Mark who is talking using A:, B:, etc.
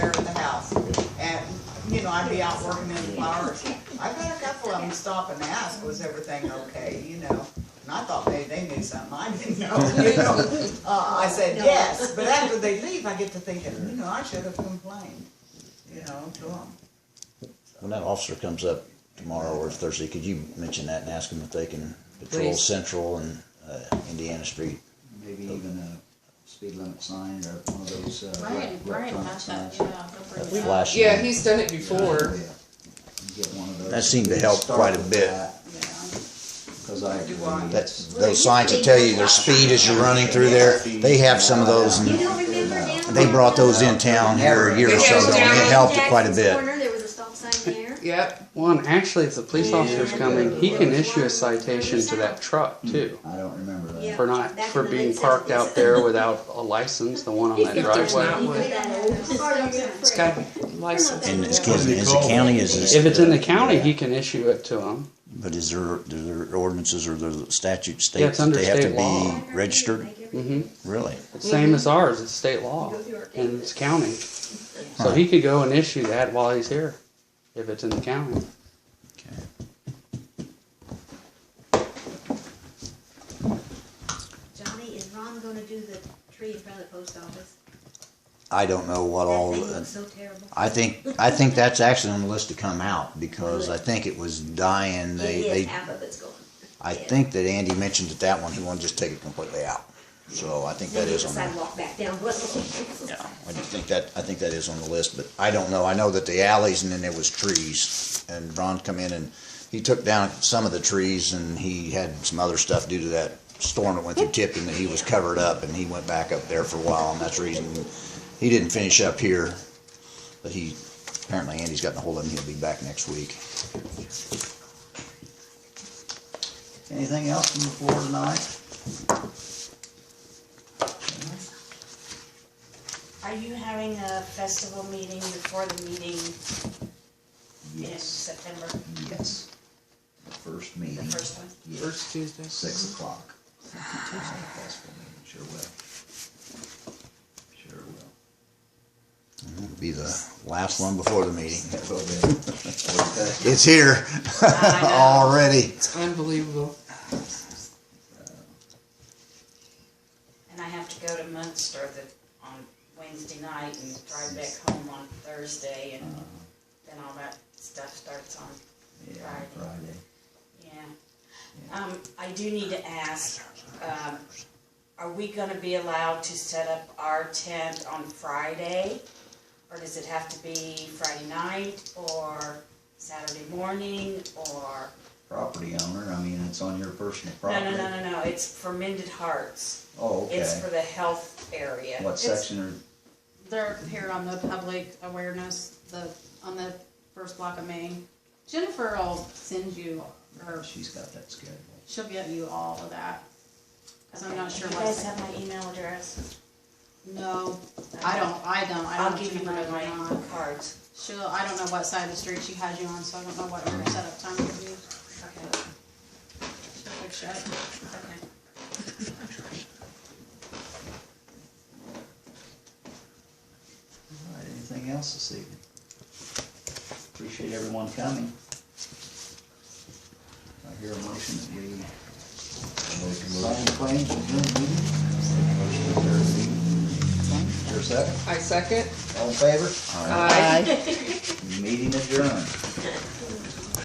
A: you know, I'd be out working in the flowers. I've had a couple of them stop and ask, was everything okay, you know? And I thought maybe they knew something I didn't know, you know? Uh, I said, yes, but after they leave, I get to thinking, you know, I should have complained, you know, to them.
B: When that officer comes up tomorrow or Thursday, could you mention that and ask them if they can patrol
C: Please.
B: Central and uh, Indiana Street?
D: Maybe even a speed limit sign or one of those uh,
E: Brian, Brian
D: electronic signs.
E: has that, yeah, he'll bring it up.
B: Flash.
C: Yeah, he's done it before.
D: Yeah. Get one of those.
B: That seemed to help quite a bit.
D: Cause I.
A: Do I?
B: That's, those signs that tell you their speed as you're running through there, they have some of those
E: You
B: and
E: don't remember down?
B: they brought those in town here a year or so ago and it helped it quite a bit.
E: Corner, there was a stop sign there.
C: Yep.
F: Well, and actually, if the police officer's coming, he can issue a citation to that truck too.
D: I don't remember that.
E: Yeah.
F: For not,
E: Back
F: for
E: in the
F: being
E: late
F: parked out
E: 60s.
F: there without a license, the one on that
C: If there's not
F: driveway.
E: You
C: one,
E: put that in the stop sign.
C: it's got to be licensed.
B: And it's, is the county, is this?
F: If it's in the county, he can issue it to them.
B: But is there, do their ordinances or their statute
F: Yeah,
B: state
F: it's
B: that they have to
F: under state
B: be registered?
F: hmm
B: Really?
F: It's
C: Mm-hmm.
F: same as ours, it's state law and it's county. So he could go and issue that while he's here, if it's in the county.
E: Johnny, is Ron gonna do the tree in front of the post office?
B: I don't know what all,
E: That thing looks so terrible.
B: I think, I think that's actually on the list to come out because I think it was dying, they,
E: It is,
B: they
E: half of it's gone.
B: I think that Andy mentioned that that one, he wanted to just take it completely out. So I think that is on,
E: The
B: the-
E: sidewalk back down Russell.
B: yeah, I just think that, I think that is on the list, but I don't know. I know that the alleys and then there was trees. And Ron come in and he took down some of the trees and he had some other stuff due to that storm that went through Tipping that he was covered up and he went back up there for a while and that's the reason he didn't finish up here. But he, apparently Andy's gotten a hold of him, he'll be back next week.
D: Anything else from the floor tonight?
G: Are you having a festival meeting before the meeting in September,
D: Yes. The first
G: the
D: meeting.
G: first one?
D: Yes,
C: First Tuesday.
D: six o'clock. Festival meeting, Sure will. Sure will.
B: It'll Be the last one before the meeting.
D: That will be. Okay.
B: It's here
C: I know.
B: already.
C: It's unbelievable.
G: And I have to go to Munster the, on Wednesday night and drive back home on Thursday and then all that stuff starts on,
D: Yeah, on Friday.
G: yeah. Um, I do need to ask, um, are we gonna be allowed to set up our tent on Friday? Or does it have to be Friday night or Saturday morning or?
D: Property owner, I mean, it's on your personal
G: No,
D: property.
G: no, no, no, no, it's for Mended Hearts.
D: Oh,
G: It's for
D: okay.
G: the health area.
D: What section are,
H: They're here on the public awareness, the, on the first block of Maine. Jennifer will send you, or
D: she's got that scheduled.
H: she'll get you all of that. Cause I'm not
G: Do
H: sure
G: you guys
H: what,
G: have my email address?
H: no, I don't, I don't, I
G: I'll
H: don't know if
G: give you
H: Jennifer
G: one
H: does
G: of
H: or
G: my
H: not.
G: cards.
H: She'll, I don't know what side of the street she has you on, so I don't know what her setup time will be.
G: Okay,
H: She'll fix it.
G: okay.
D: All right, anything else this evening? Appreciate everyone coming. I hear a motion that we sign the claims and adjourn the meeting. Motion to adjourn the meeting. Is there a second?
C: I second.
D: All in favor?
C: Aye.
D: Meeting adjourned.